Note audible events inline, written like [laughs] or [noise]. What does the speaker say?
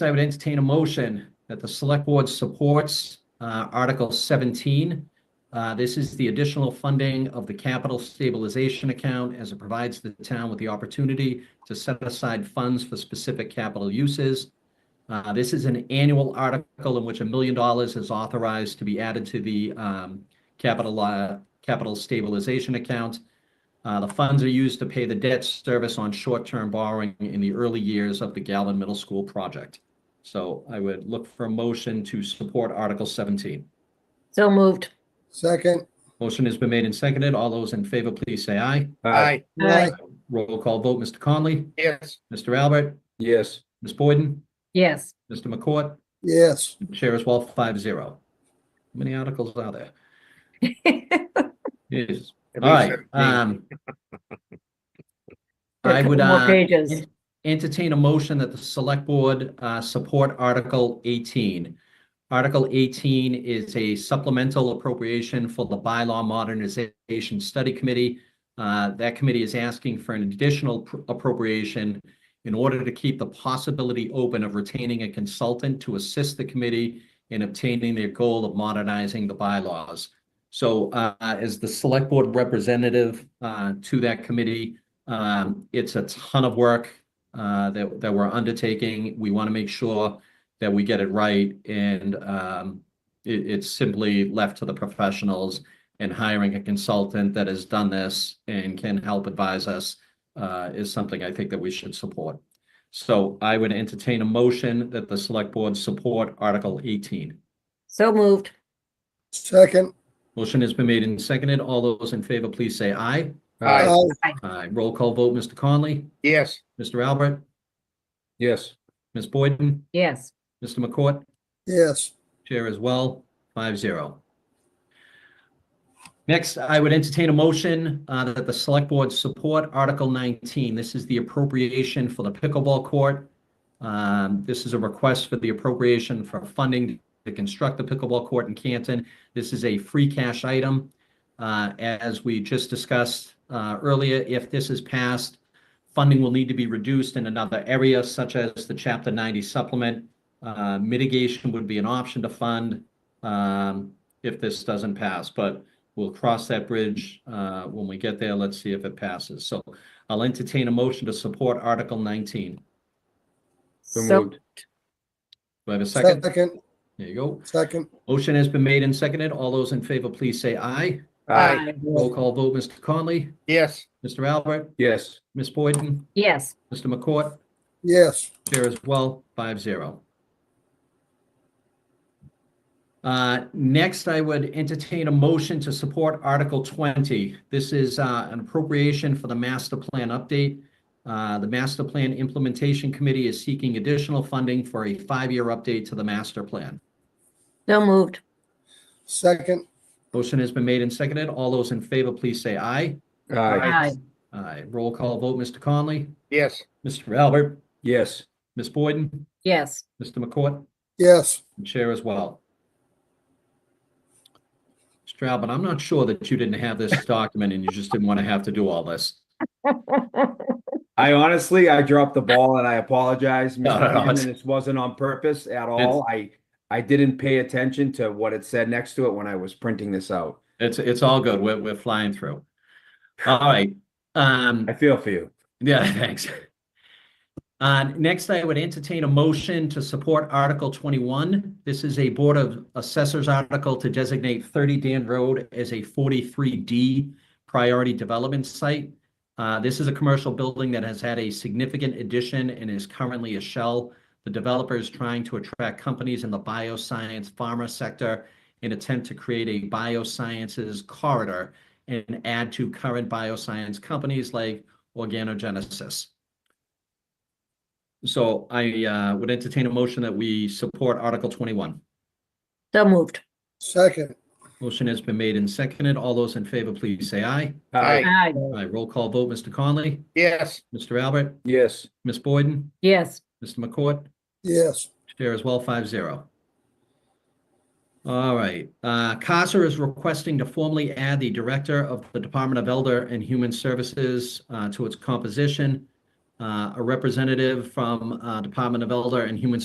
I would entertain a motion that the select board supports uh, Article 17. Uh, This is the additional funding of the capital stabilization account as it provides the town with the opportunity to set aside funds for specific capital uses. Uh, This is an annual article in which a million dollars is authorized to be added to the um, capital, uh, capital stabilization account. Uh, The funds are used to pay the debt service on short-term borrowing in the early years of the Galvin Middle School project. So I would look for a motion to support Article 17. So moved. Second. Motion has been made and seconded. All those in favor, please say aye. Aye, Aye. Roll call vote, Mr. Conley, yes, Mr. Albert, Yes, Ms. Boyden, Yes, Mr. McCourt, Yes, Chair as well, five zero. How many articles are there? Yes, at all right. least seventeen. [laughs] um, A I would, couple more uh, pages. entertain a motion that the select board uh, support Article 18. Article 18 is a supplemental appropriation for the Bylaw Modernization Study Committee. Uh, That committee is asking for an additional pr- appropriation in order to keep the possibility open of retaining a consultant to assist the committee in obtaining their goal of modernizing the bylaws. So uh, as the select board representative uh, to that committee, um, it's a ton of work uh, that, that we're undertaking. We want to make sure that we get it right and um, it, it's simply left to the professionals and hiring a consultant that has done this and can help advise us uh, is something I think that we should support. So I would entertain a motion that the select board support Article 18. So moved. second. Motion has been made and seconded. All those in favor, please say aye. Aye, Aye. Aye. Roll call vote, Mr. Conley, yes, Mr. Albert, yes, Ms. Boyden, Yes, Mr. McCourt. Yes, Chair as well, five zero. Next, I would entertain a motion uh, that the select board support Article 19. This is the appropriation for the pickleball court. Um, This is a request for the appropriation for funding to construct the pickleball court in Canton. This is a free cash item. Uh, As we just discussed uh, earlier, if this is passed, funding will need to be reduced in another area such as the Chapter 90 supplement. Uh, Mitigation would be an option to fund um, if this doesn't pass, but we'll cross that bridge uh, when we get there. Let's see if it passes. So I'll entertain a motion to support Article 19. Do so so, moved. I have a second? second, There you go. second. Motion has been made and seconded. All those in favor, please say aye. aye, Roll call vote, Mr. Conley, yes, Mr. Albert, Yes, Ms. Boyden, yes, Mr. McCourt, Yes, Chair as well, five zero. Uh, next, I would entertain a motion to support Article twenty. This is, uh, an appropriation for the master plan update. Uh, the master plan implementation committee is seeking additional funding for a five-year update to the master plan. so moved. second. Motion has been made and seconded. All those in favor, please say aye. aye, Aye, Aye. Roll call vote, Mr. Conley, yes, Mr. Albert, yes, Ms. Boyden, yes, Mr. McCourt. Yes, and Chair as well. Mr. Albert, I'm not sure that you didn't have this document and you just didn't want to have to do all this. I honestly, I dropped the ball and [laughs] I apologize, No, no, Mr. no, Chairman. it's- This wasn't on purpose at all. I, I didn't pay attention to what it said next to it when I was printing this out. It's, it's all good. We're, we're flying through. All right. Um, I feel for you. yeah, [laughs] thanks. Uh, next, I would entertain a motion to support Article twenty-one. This is a Board of Assessors article to designate thirty Dan Road as a forty-three D priority development site. Uh, this is a commercial building that has had a significant addition and is currently a shell. The developer is trying to attract companies in the bioscience pharma sector in attempt to create a biosciences corridor and add to current bioscience companies like organogenesis. So I uh, would entertain a motion that we support Article 21. so moved. second. Motion has been made and seconded. All those in favor, please say aye. aye, aye, Aye, Aye. Roll call vote, Mr. Conley, yes, Mr. Albert, yes, Ms. Boyden, yes, Mr. McCourt. Yes, Chair as well, five zero. All right, uh, CASA is requesting to formally add the Director of the Department of Elder and Human Services uh, to its composition. Uh, A representative from uh, Department of Elder and Human